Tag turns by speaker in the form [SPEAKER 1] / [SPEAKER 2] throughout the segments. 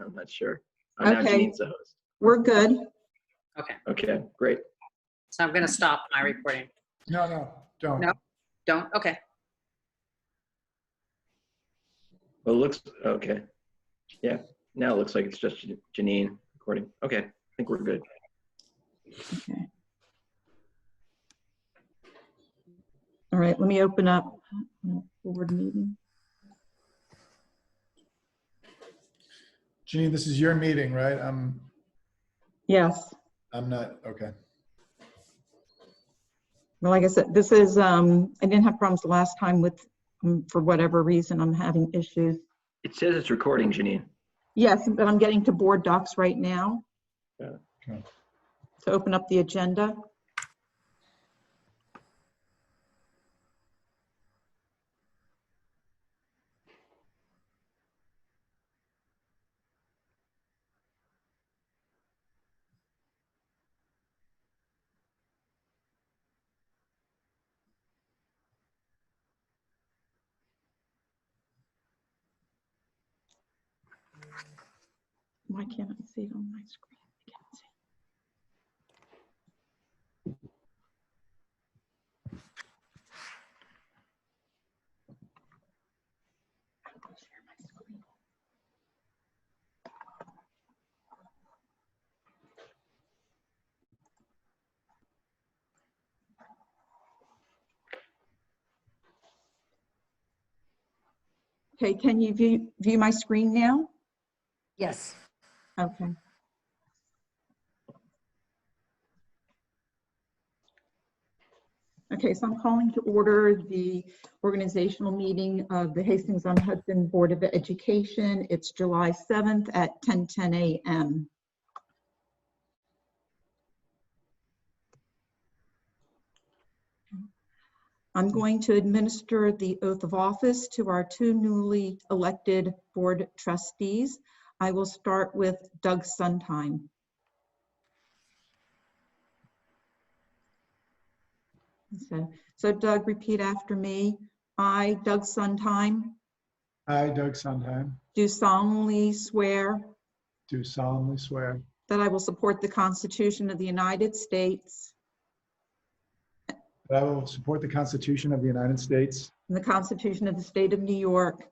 [SPEAKER 1] I'm not sure. Oh, now
[SPEAKER 2] Okay.
[SPEAKER 1] Janine's the host.
[SPEAKER 2] We're good.
[SPEAKER 1] Okay, great.
[SPEAKER 3] So I'm going to stop my recording.
[SPEAKER 4] No, no, don't.
[SPEAKER 3] No. Don't, okay.
[SPEAKER 1] Well, it looks, okay. Yeah, now it looks like it's just Janine recording. Okay, I think we're good.
[SPEAKER 2] All right, let me open up uh, board meeting.
[SPEAKER 4] Jeanine, this is your meeting, right? I'm,
[SPEAKER 2] Yes,
[SPEAKER 4] I'm not, okay.
[SPEAKER 2] well, like I said, this is, um, I didn't have problems the last time with, um, for whatever reason, I'm having issues.
[SPEAKER 1] It says it's recording, Janine.
[SPEAKER 2] Yes, but I'm getting to board docs right now.
[SPEAKER 1] Yeah,
[SPEAKER 4] okay.
[SPEAKER 2] So open up the agenda. Why can't I see it on my screen? I can't see. I'm gonna share my screen. Okay, can you view, view my screen now?
[SPEAKER 5] Yes.
[SPEAKER 2] Okay. Okay, so I'm calling to order the organizational meeting of the Hastings-on-Hudson Board of Education. It's July 7th at 10:10 a.m. I'm going to administer the oath of office to our two newly elected board trustees. I will start with Doug Suntime. So, so Doug, repeat after me. I, Doug Suntime,
[SPEAKER 4] I, Doug Sondheim,
[SPEAKER 2] do solemnly swear
[SPEAKER 4] do solemnly swear
[SPEAKER 2] that I will support the Constitution of the United States
[SPEAKER 4] that I will support the Constitution of the United States
[SPEAKER 2] and the Constitution of the State of New York,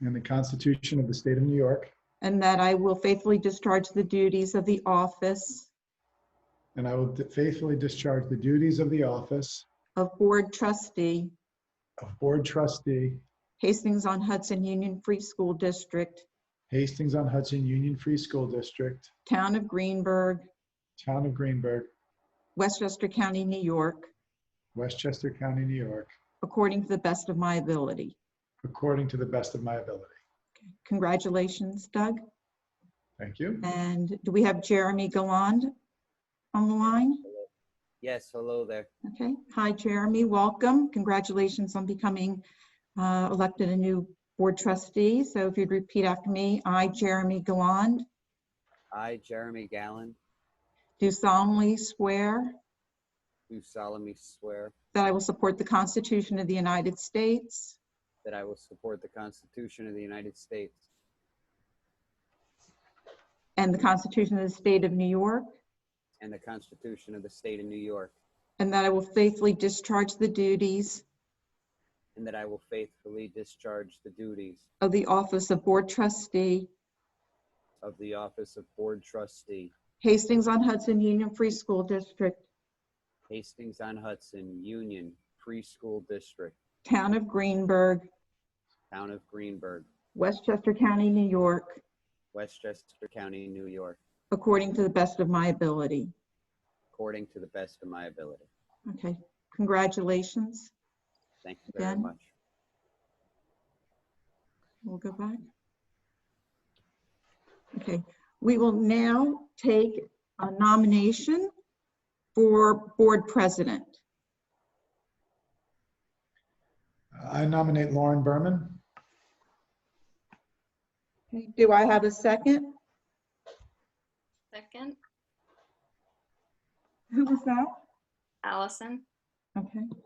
[SPEAKER 4] and the Constitution of the State of New York,
[SPEAKER 2] and that I will faithfully discharge the duties of the office
[SPEAKER 4] and I will faithfully discharge the duties of the office
[SPEAKER 2] of Board Trustee,
[SPEAKER 4] of Board Trustee,
[SPEAKER 2] Hastings-on-Hudson Union Free School District,
[SPEAKER 4] Hastings-on-Hudson Union Free School District,
[SPEAKER 2] Town of Greenberg,
[SPEAKER 4] Town of Greenberg,
[SPEAKER 2] Westchester County, New York,
[SPEAKER 4] Westchester County, New York,
[SPEAKER 2] according to the best of my ability.
[SPEAKER 4] according to the best of my ability.
[SPEAKER 2] Congratulations, Doug.
[SPEAKER 4] Thank you.
[SPEAKER 2] And do we have Jeremy Galland on the line?
[SPEAKER 6] Yes, hello there.
[SPEAKER 2] Okay. Hi, Jeremy. Welcome. Congratulations on becoming uh, elected a new board trustee. So if you'd repeat after me, I, Jeremy Galland,
[SPEAKER 6] I, Jeremy Gallen,
[SPEAKER 2] do solemnly swear
[SPEAKER 6] do solemnly swear
[SPEAKER 2] that I will support the Constitution of the United States
[SPEAKER 6] that I will support the Constitution of the United States
[SPEAKER 2] and the Constitution of the State of New York,
[SPEAKER 6] and the Constitution of the State of New York,
[SPEAKER 2] and that I will faithfully discharge the duties
[SPEAKER 6] and that I will faithfully discharge the duties
[SPEAKER 2] of the office of board trustee,
[SPEAKER 6] of the office of Board Trustee,
[SPEAKER 2] Hastings-on-Hudson Union Free School District,
[SPEAKER 6] Hastings-on-Hudson Union Preschool District,
[SPEAKER 2] Town of Greenberg,
[SPEAKER 6] Town of Greenberg,
[SPEAKER 2] Westchester County, New York,
[SPEAKER 6] Westchester County, New York,
[SPEAKER 2] according to the best of my ability.
[SPEAKER 6] according to the best of my ability.
[SPEAKER 2] Okay, congratulations.
[SPEAKER 6] Thank you very
[SPEAKER 2] Again.
[SPEAKER 6] much.
[SPEAKER 2] We'll go back. Okay, we will now take a nomination for board president.
[SPEAKER 4] I nominate Lauren Berman.
[SPEAKER 2] Do I have a second?
[SPEAKER 7] Second,
[SPEAKER 2] Who was that?
[SPEAKER 7] Allison.
[SPEAKER 2] Okay.